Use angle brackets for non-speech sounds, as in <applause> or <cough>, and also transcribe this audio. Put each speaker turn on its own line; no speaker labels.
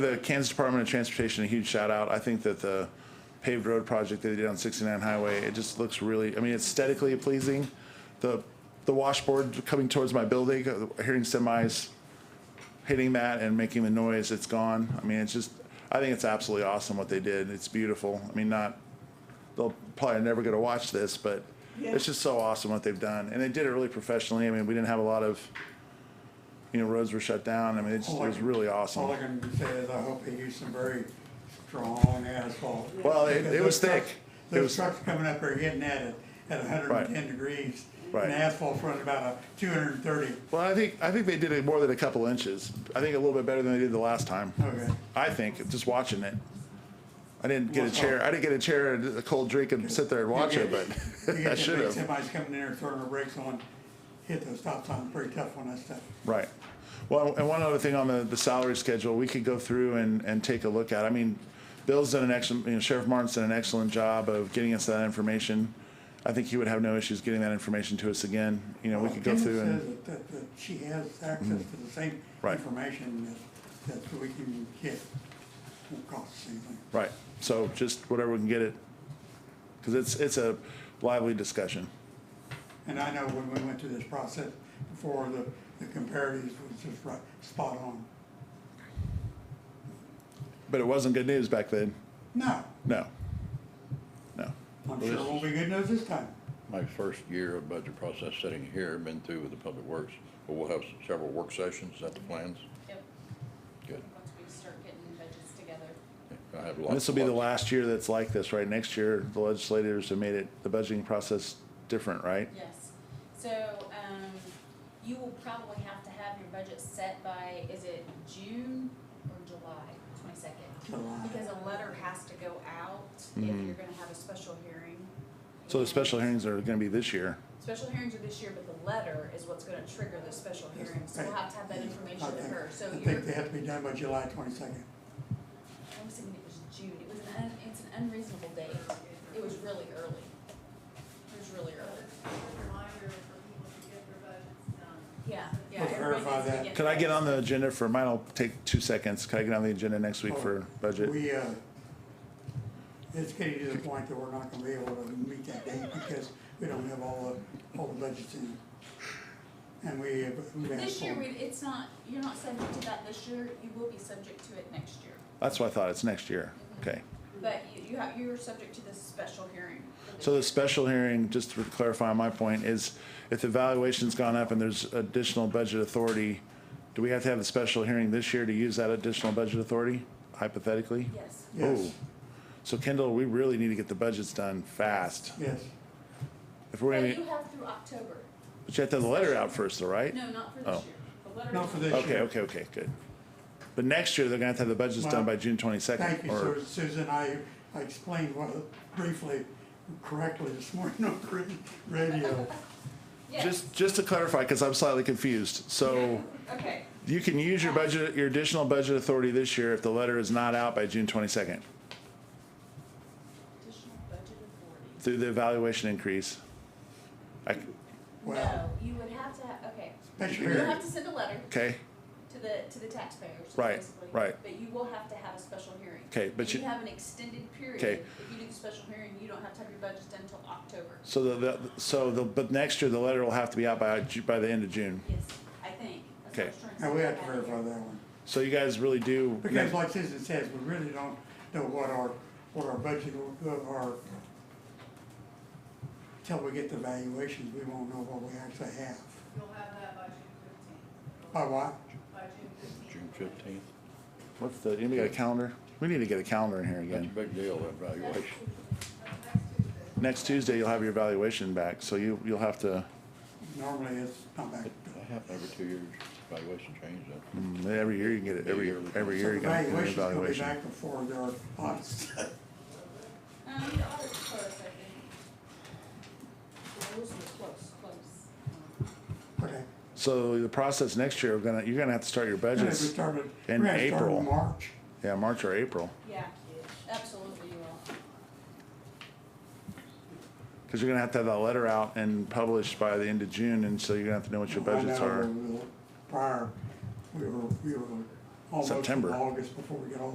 The Kansas Department of Transportation, a huge shout out. I think that the paved road project they did on 69 Highway, it just looks really, I mean, aesthetically pleasing. The, the washboard coming towards my building, uh, hearing semis hitting that and making the noise, it's gone. I mean, it's just, I think it's absolutely awesome what they did. It's beautiful. I mean, not, they'll probably never get to watch this, but it's just so awesome what they've done. And they did it really professionally. I mean, we didn't have a lot of, you know, roads were shut down. I mean, it's, it was really awesome.
All I can say is I hope they use some very strong asphalt.
Well, it- it was
Because those
thick.
trucks-
It was-
Those trucks coming up there hitting at it at hundred and ten degrees.
Right.
And asphalt's running about a two hundred and thirty.
Well, I think I think they did it more than a couple inches. I think a little bit better than they did the last time.
Okay.
I think just watching it. I didn't get a chair. I didn't get a chair and a cold drink and sit there and watch it, but <laughs> I should have.
Somebody's coming in there throwing their brakes on, hit those stop signs, pretty tough on that stuff.
Right. Well, and one other thing on the, the salary schedule, we could go through and, and take a look at. I mean, Bill's done an excellent, you know, Sheriff Martin's done an excellent job of getting us that information. I think he would have no issues getting that information to us again. You know, we could go
Dennis
through and Mm-hmm.
says that- That, that she has access to the same
Right.
information that, that we can get. Won't cost us anything.
right. So just whatever we can get it, because it's it's a lively discussion.
And I know when we went through this process before, the, the comparatives was just right, spot on.
But it wasn't good news back then.
No,
No. No.
I'm
Well,
sure it
this
won't be good news this time.
My first year of budget process sitting here, been through with the public works, but we'll have several work sessions, is that the plans?
Yep,
Good.
once we start getting budgets together.
I have lots.
This will be the
lots-
last year that's like this, right? Next year, the legislators have made it, the budgeting process different, right?
Yes, so, um, you will probably have to have your budget set by, is it June or July, twenty-second?
July. Hmm.
Because a letter has to go out if you're gonna have a special hearing.
So the special hearings are gonna be this year.
Special hearings are this year, but the letter is what's gonna trigger the special hearing, so we'll have to have that information
I
to
think-
her, so
I
you're,
think they have to be done by July twenty-second.
I was thinking it was June, it was an, un- it's an unreasonable date, it was really early. It was really early.
reminder for people to get their budgets done.
Yeah, yeah.
Let's
everybody
verify
needs to
that.
Could I get on the agenda for, mine'll take two seconds. Could I get on the agenda next week for budget?
We, uh, it's getting to the point that we're not gonna be able to meet that date because we don't have all the, all the budgets in. And we have. we have
This year,
four-
we, it's not, you're not subject to that this year, you will be subject to it next year.
That's what I thought, it's next year. Okay.
But you, you have, you're subject to this special hearing. for this
So the
year.
special hearing, just to clarify my point, is if the valuation's gone up and there's additional budget authority, do we have to have the special hearing this year to use that additional budget authority hypothetically?
Yes,
Yes,
Oh. So Kendall, we really need to get the budgets done fast.
yes.
If we're
but
gonna,
you have through October,
but you have to have the letter out first though, right?
no, not for this
Oh.
year, the letter.
Not for this year.
Okay, okay, okay, good. But next year, they're gonna have to have the budgets done by June
Thank
twenty-second
you,
or,
Su- Susan. I, I explained what, briefly, correctly this morning <laughs> on gr- radio.
Yes,
just, just to clarify, cause I'm slightly confused. So
okay,
you can use your budget, your additional budget authority this year if the letter is not out by June twenty-second
additional budget authority.
through the evaluation increase. I,
Well,
No, you would have to have, okay,
special
you'll
hearing,
have to send a letter
okay,
to the, to the taxpayers,
Right,
basically.
right.
But you will have to have a special hearing.
okay, but you,
You have an extended period.
Okay.
If you do the special hearing, you don't have to have your budget done until October.
so the, the, so the, but next year, the letter will have to be out by, Ju- by the end of June.
Yes, I think. That's what I was trying to
and
say.
we have to verify that one.
So you guys really do.
Because like Susan says, we really don't know what our, what our budget of our, till we get the valuations, we won't know what we actually have.
You'll have that by June fifteenth.
By what?
By June fifteenth.
June fifteenth,
What's the, anybody got a calendar? We need to get a calendar in here
that's a
again.
big deal, that valuation.
That's next Tuesday.
Next Tuesday, you'll have your evaluation back, so you, you'll have to,
Normally it's not back.
That happens every two years, valuation change, that,
mm, every year you can get it, every, every year you
So
gotta
the
get an
valuations will be
evaluation.
back before their audits. <laughs>
Um, the audit's close, I think. The rules were close, close.
Okay.
So the process next year, we're gonna, you're gonna have to start your
And if we
budgets,
started, we're
in
gonna start
April.
in March.
yeah, March or April,
Yeah, absolutely you will.
cause you're gonna have to have that letter out and published by the end of June, and so you're gonna have to know what your
I
budgets
know
are.
we were- Prior, we were, we were almost in
September.
August before we get all